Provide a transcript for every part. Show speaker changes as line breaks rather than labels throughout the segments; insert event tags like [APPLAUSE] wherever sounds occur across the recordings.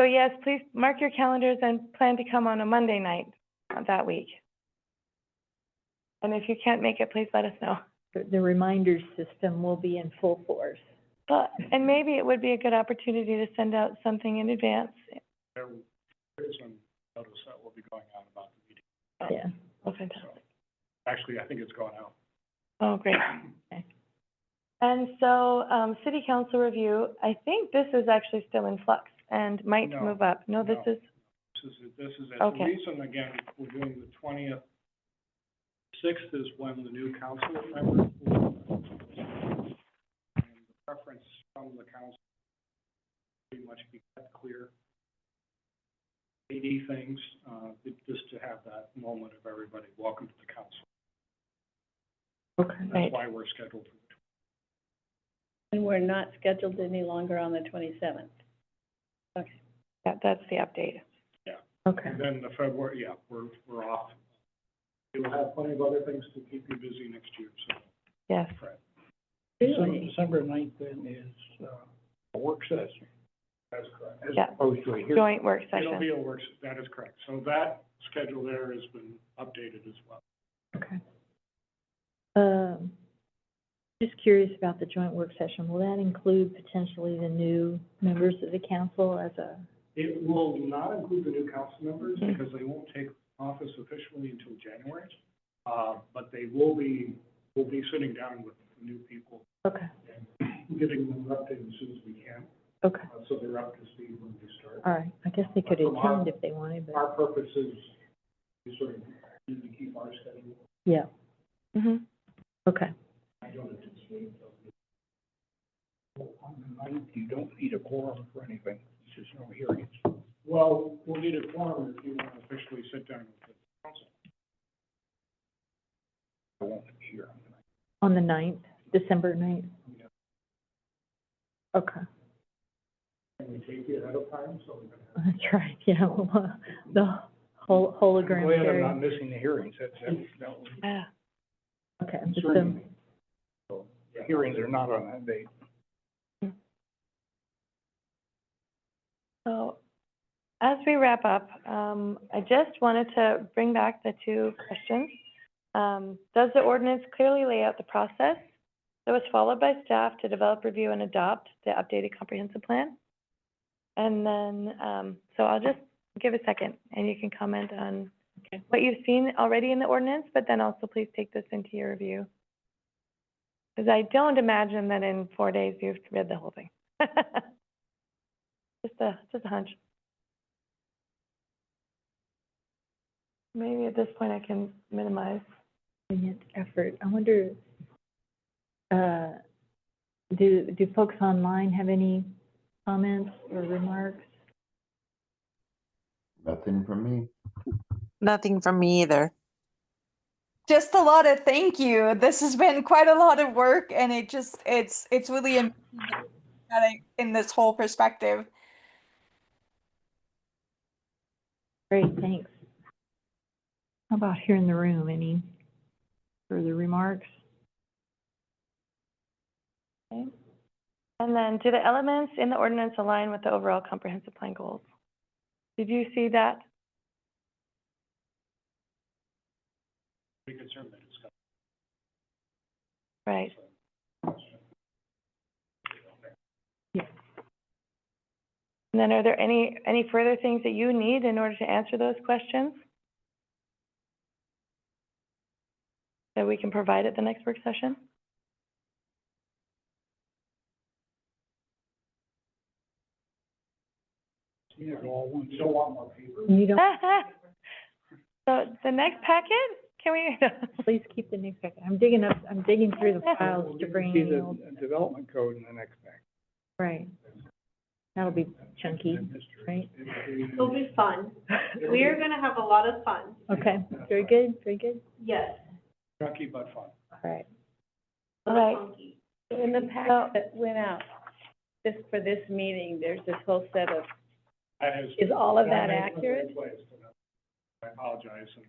So yes, please mark your calendars and plan to come on a Monday night of that week. And if you can't make it, please let us know.
The- The reminder system will be in full force.
But, and maybe it would be a good opportunity to send out something in advance.
There is a notice that will be going out about the meeting.
Yeah.
Oh, fantastic.
Actually, I think it's gone out.
Oh, great.
Okay.
And so, um, city council review, I think this is actually still in flux and might
No,
move up. No, this
no.
is,
This is, this is, it.
Okay.
the reason, again, we're doing the twentieth. Sixth is when the new council members. will- and the Preference from the council pretty much be cut clear. AD things, uh, it- just to have that moment of everybody, welcome to the council.
Okay.
Right.
That's why we're scheduled for the twentieth.
And we're not scheduled any longer on the twenty-seventh.
yeah, that's the update.
Okay.
And then the February, yeah, we're, we're off. You'll have plenty of other things to keep you busy next year, so.
Yes.
Really?
December ninth then is, uh, a work session. That's correct.
Yeah.
opposed to a
Joint work
It'll be
session.
a work, se- that is correct. So that schedule there has been updated as well.
Okay. Um, just curious about the joint work session. Will that include potentially the new members of the council as a,
It will not include the new council members
Mhm.
because they won't take office officially until January. Uh, but they will be, will be sitting down with new people
okay,
and getting them updated as soon as we can.
okay,
uh, So they're up to speed when we start.
all right. I guess they could
From our-
attend if they wanted, but,
Our purpose is to sort of need to keep our schedule.
yeah,
hmm
okay.
I don't anticipate they'll be- Well, On the ninth, you don't need a quorum for anything, it's just no hearings. Well, we'll need a quorum if you want to officially sit down with the council. I won't hear.
On the ninth, December ninth?
Yeah.
Okay, [LAUGHS]
Can we take you ahead of time, so we can have?
that's right, [LAUGHS] yeah, well, uh, the hol- hologram theory.
missing the hearings, that's, that was
Yeah.
Okay, just um,
The hearings are not on that date.
So, as we wrap up, um, I just wanted to bring back the two questions. Um, does the ordinance clearly lay out the process that was followed by staff to develop, review, and adopt the updated comprehensive plan? And then, um, so I'll just give a second, and you can comment on
Okay.
what you've seen already in the ordinance, but then also please take this into your review. Because I don't imagine that in four days you've read the whole thing. [LAUGHS] Just a, just a hunch. Maybe at this point I can minimize.
poignant effort. I wonder, uh, do, do folks online have any comments or remarks?
Nothing from me.
Nothing from me either.
just a lot of thank you. This has been quite a lot of work, and it just it's it's really amazing that I- in this whole perspective.
Great, thanks. How about here in the room, any further remarks?
And then, do the elements in the ordinance align with the overall comprehensive plan goals? Did you see that?
We could certainly discuss.
Right. And then, are there any, any further things that you need in order to answer those questions? That we can provide at the next work session?
You don't want more paper.
You don't,
So, the next packet, can we?
please keep the next second. I'm digging up, I'm digging through the
We'll
files to
get
bring
see
in the old,
development code in the next pack.
right. That'll be chunky, right?
It'll be fun. We are gonna have a lot of fun.
Okay, very good, very good.
Yes.
Chunky but fun.
All right.
Right.
In the packet that went out, just for this meeting, there's this whole set of,
That is.
is all of that
that's been
accurate?
replaced, and I apologize, in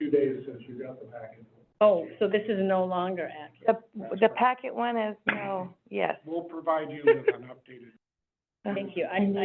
two days since you got the packet.
Oh, so this is no longer accurate.
The, the packet one is no, yes.
We'll provide you with an updated
Thank you. I,
And
I